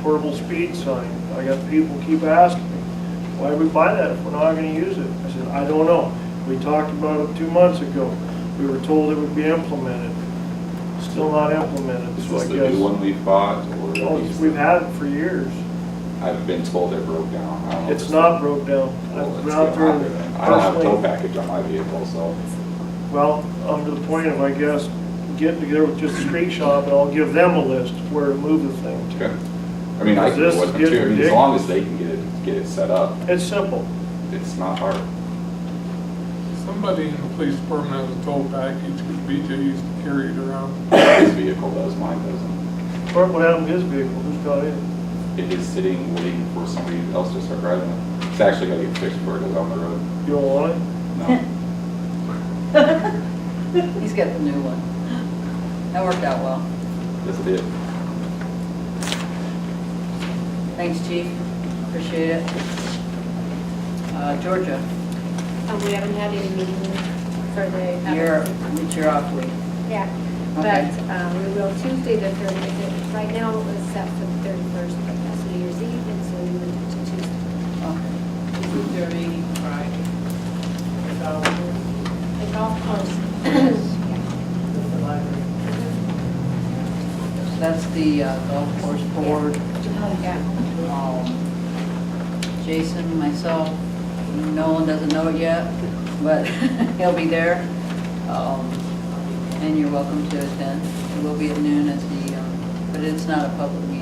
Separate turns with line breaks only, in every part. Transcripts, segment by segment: portable speed sign. I got people keep asking me, why do we buy that if we're not gonna use it? I said, I don't know. We talked about it two months ago. We were told it would be implemented. Still not implemented,
Is
so
this
I
the new
guess.
one we've bought
Oh,
or?
it's- We've had it for years.
I've been told it broke down. I don't know if
It's not broke down. I've
Well, Oh, it's
been out
gonna
there
happen. I don't have a tow
personally.
package on my vehicle, so
Well, I'm to the point of, I guess, getting together with just the street shop and I'll give them a list where to move the thing to.
okay. I mean, I can
This
go with them
is
too. I mean, as
getting
long as they can get it, get it set up,
It's simple.
it's not hard.
Somebody in the police department has a tow package, because BJ used to carry it around.
His vehicle does, mine doesn't.
Or what happened to his vehicle? Who's got it?
It is sitting waiting for somebody else to start driving it. It's actually gotta get fixed before it goes on the road.
You don't want it?
No.
He's got the new one. That worked out well.
Yes, it did.
Thanks, chief. Appreciate it. Uh, Georgia,
Um, we haven't had any meetings for the.
you're, it's your off week.
Yeah,
Okay.
but, um, we will Tuesday the thirtieth, right now it was set for the thirty-first, but that's New Year's Eve, and so we went to Tuesday.
Thirty,
The golf course. Yeah.
That's the uh, golf course board.
Yeah.
Mm-hmm. Um, Jason, myself, Nolan doesn't know it yet, but he'll be there. Um, And you're welcome to attend. It will be at noon at the, um, but it's not a public meeting.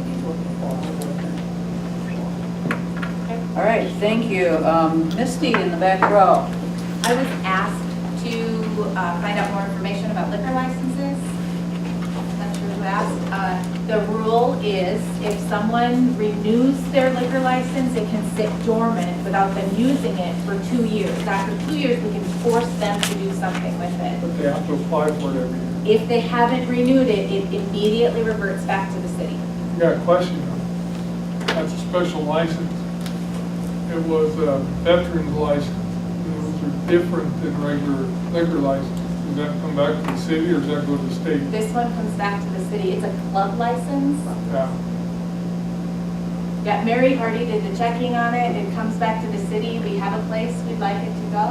All right, thank you. Um, Misty in the back row.
I was asked to uh, find out more information about liquor licenses. I'm Not sure who asked. Uh, The rule is if someone renews their liquor license, it can sit dormant without them using it for two years. After two years, we can force them to do something with it.
But they have to apply for it every year.
If they haven't renewed it, it immediately reverts back to the city.
You got a question? though. That's a special license. It was a veteran's license. Those are different than regular liquor license. Does that come back to the city or does that go to the state?
This one comes back to the city. It's a club license.
Yeah.
Yeah, Mary Hardy did the checking on it, it comes back to the city, we have a place we'd like it to go.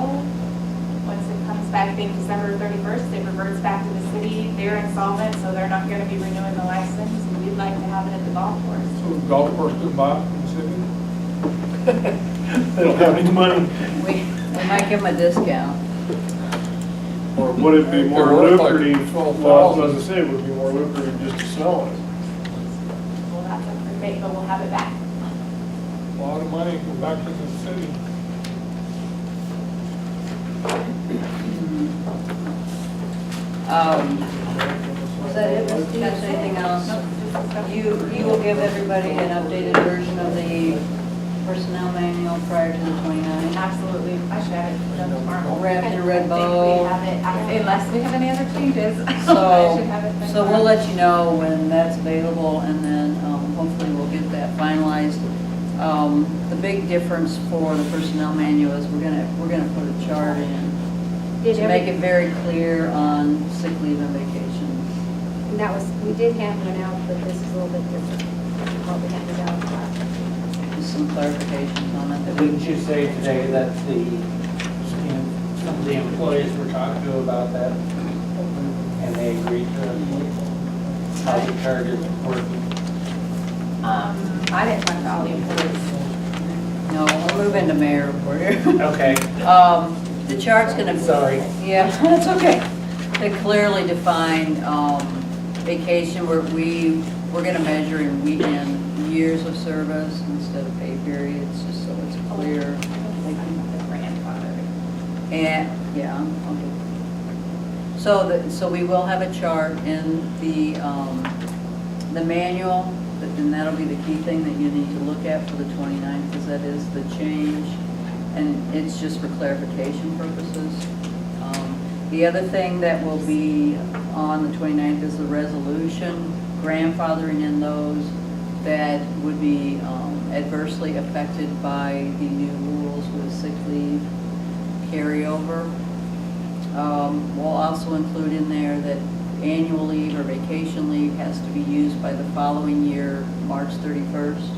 Once it comes back, I think December thirty-first, it reverts back to the city, they're insolvent, so they're not gonna be renewing the license, and we'd like to have it at the golf course.
So the golf course can buy it from the city?
They don't have any money.
We we might give them a discount.
Or would it be more
They're worth like
lucrative? Well,
12,000.
as I say, it would be more lucrative just to sell it.
We'll have to debate, but we'll have it back.
A lot of money go back to the city.
Um, Was that it, Misty?
That's it.
Anything else?
Nope, just the stuff.
You, you will give everybody an updated version of the personnel manual prior to the 29th.
Absolutely, I should have it done tomorrow.
Wrap your red
I think
bow.
We have it, I- unless we have any other changes. I should have it
So,
by
so we'll
tomorrow.
let you know when that's available, and then um, hopefully we'll get that finalized. Um, The big difference for the personnel manual is we're gonna, we're gonna put a chart in
Did
to make
every,
it very clear on sick leave and vacation.
and that was, we did have one out, but this is a little bit different than what we had to go.
Just some clarifications on it that we
Didn't you say today that the, you know, some of the employees were talked to about that? And they agreed to it? How the target is working?
Um, I didn't talk to all the employees.
No, we'll move into mayor report here.
Okay,
Um, The chart's gonna.
Sorry.
Yeah, that's okay. To clearly define um, vacation, where we, we're gonna measure in weekend years of service instead of pay periods, just so it's clear.
Oh,
And, yeah, okay. So that, so we will have a chart in the, um, the manual, and that'll be the key thing that you need to look at for the 29th, because that is the change, and it's just for clarification purposes. Um, The other thing that will be on the 29th is the resolution, grandfathering in those that would be um, adversely affected by the new rules with sick leave carryover. Um, We'll also include in there that annual leave or vacation leave has to be used by the following year, March 31st.